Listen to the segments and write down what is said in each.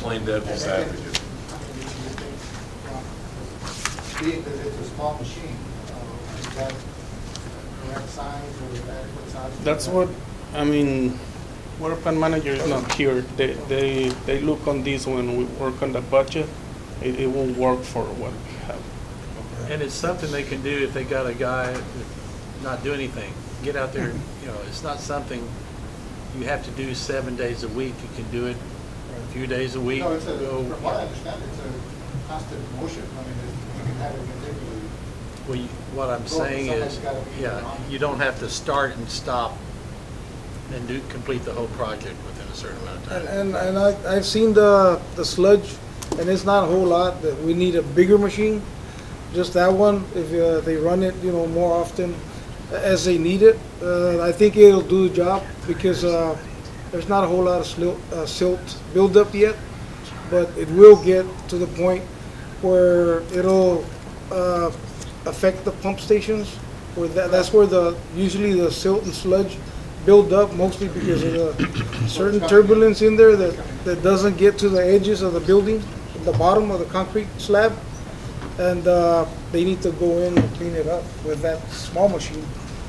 plain devil's advocate. Being that it's a small machine, uh, is that correct size or adequate size? That's what, I mean, water plant manager is not here. They, they, they look on this when we work on the budget. It, it will work for what we have. And it's something they can do if they got a guy that not do anything. Get out there, you know, it's not something you have to do seven days a week. You can do it a few days a week. No, it's a, Go- from what I understand, it's a constant motion, I mean, it's- you can have it continually. Well, you- what I'm saying is, Something's gotta be yeah, on. you don't have to start and stop and do, complete the whole project within a certain amount of And, time. and, and I, I've seen the, the sludge, and it's not a whole lot, that we need a bigger machine. Just that one, if uh, they run it, you know, more often as they need it, uh, I think it'll do the job, because, uh, there's not a whole lot of silt, uh, silt buildup yet, but it will get to the point where it'll, uh, affect the pump stations, where that, that's where the, usually the silt and sludge build up, mostly because of the certain turbulence in there that, that doesn't get to the edges of the building, the bottom of the concrete slab. And, uh, they need to go in and clean it up with that small machine,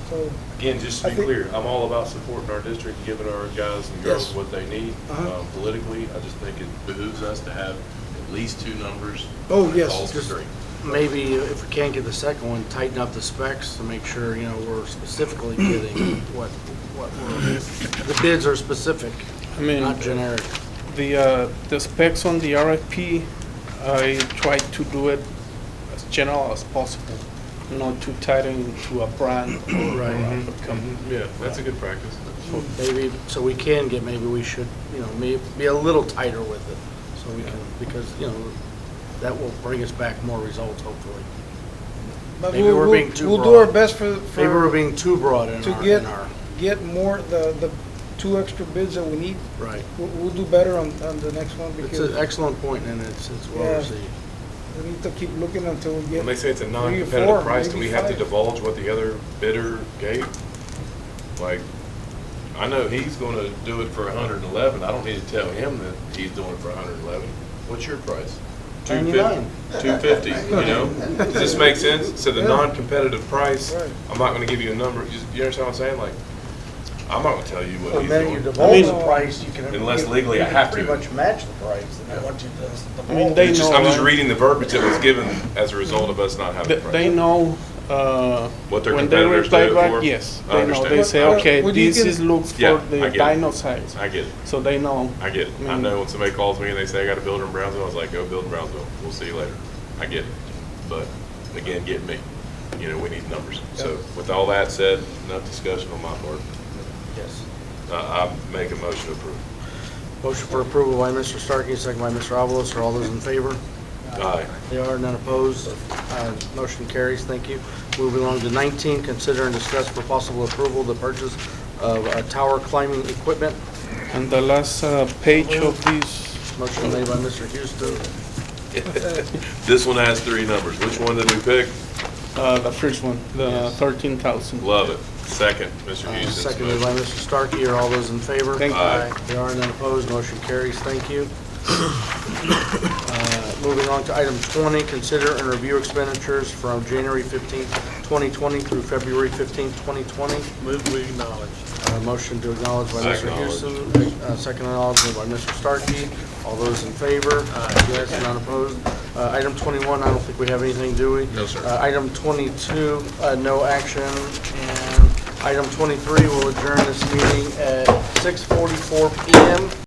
so. Again, just to I be think- clear, I'm all about supporting our district, giving our guys and girls Yes. what they need Uh-huh. um, politically. I just think it behooves us to have at least two numbers. Oh, when it yes. calls for three. Maybe if we can't get the second one, tighten up the specs to make sure, you know, we're specifically getting what, what, we're- the bids are specific, I mean, not generic. the, uh, the specs on the RFP, I tried to do it as general as possible, not too tied into a brand or Right. a company. Yeah, that's a good practice. Maybe, so we can get, maybe we should, you know, may, be a little tighter with it, so we can, because, you know, that will bring us back more results, hopefully. but Maybe we'll- we're we'll- being too We'll do our broad. best for, Maybe we're for, being too broad in to our, get, in our, get more, the, the two extra bids that we need. right. We'll, we'll do better on, on the next one It's an because excellent point, and it's, it's well Yeah. received. we need to keep looking until we When they get, say it's a four, non-competitive price, do maybe we have to five. divulge what the other bidder gave? Like, I know he's gonna do it for hundred and eleven, I don't need to tell him that he's doing it for hundred and eleven. What's your price? Two fifty. 99. Two fifty, you know? Does this make sense? So the Yeah. non-competitive price, Right. I'm not gonna give you a number, you you understand what I'm saying? Like, I'm not gonna tell you what And he's then you doing. divulge I the mean- price, you can. Unless you can- legally you I can have to. Pretty much match the price, and I want you to. I mean, they It's just- know, I'm just right? reading the verbiage that was given as a result of us not having Th- a price. They know, uh. What their when they competitors reply do it back, for? Yes, I they know. They understand. say, Well, okay, well, you this can- is looks Yeah, for I the get it. dino size. I get it. So they know. I get it. I mean- know when somebody calls me and they say I got a builder in Brownsville, I was like, go build in Brownsville. We'll see you later. I get it. But again, get me. You know, we need numbers. So with all that said, enough discussion on my part. Yes. Uh, I make a motion to approve. Motion for approval by Mr. Starkey, second by Mr. Avalos. Are all those in favor? Aye. They are, none opposed. Uh, Motion carries, thank you. Moving along to 19, consider and discuss for possible approval the purchase of uh, tower climbing equipment. And the last uh, page of this, Motion made by Mr. Houston. This one has three numbers. Which one did we pick? uh, the first one, the thirteen thousand. Love it. Second, Mr. Uh, Houston's Seconded by motion. Mr. Starkey. Are all those in favor? Thank you. Aye. They are, none opposed. Motion carries, thank you. Uh, Moving on to item 20, consider and review expenditures from January 15, 2020 through February 15, 2020. Move, we acknowledge. Uh, Motion to acknowledge by Mr. Acknowledge. Houston, uh, second acknowledgement by Mr. Starkey. All those in favor? Yes, none opposed. Uh, Item 21, I don't think we have anything, do we? No, sir. Uh, Item 22, uh, no action. And item 23, we'll adjourn this meeting at 6:44 PM.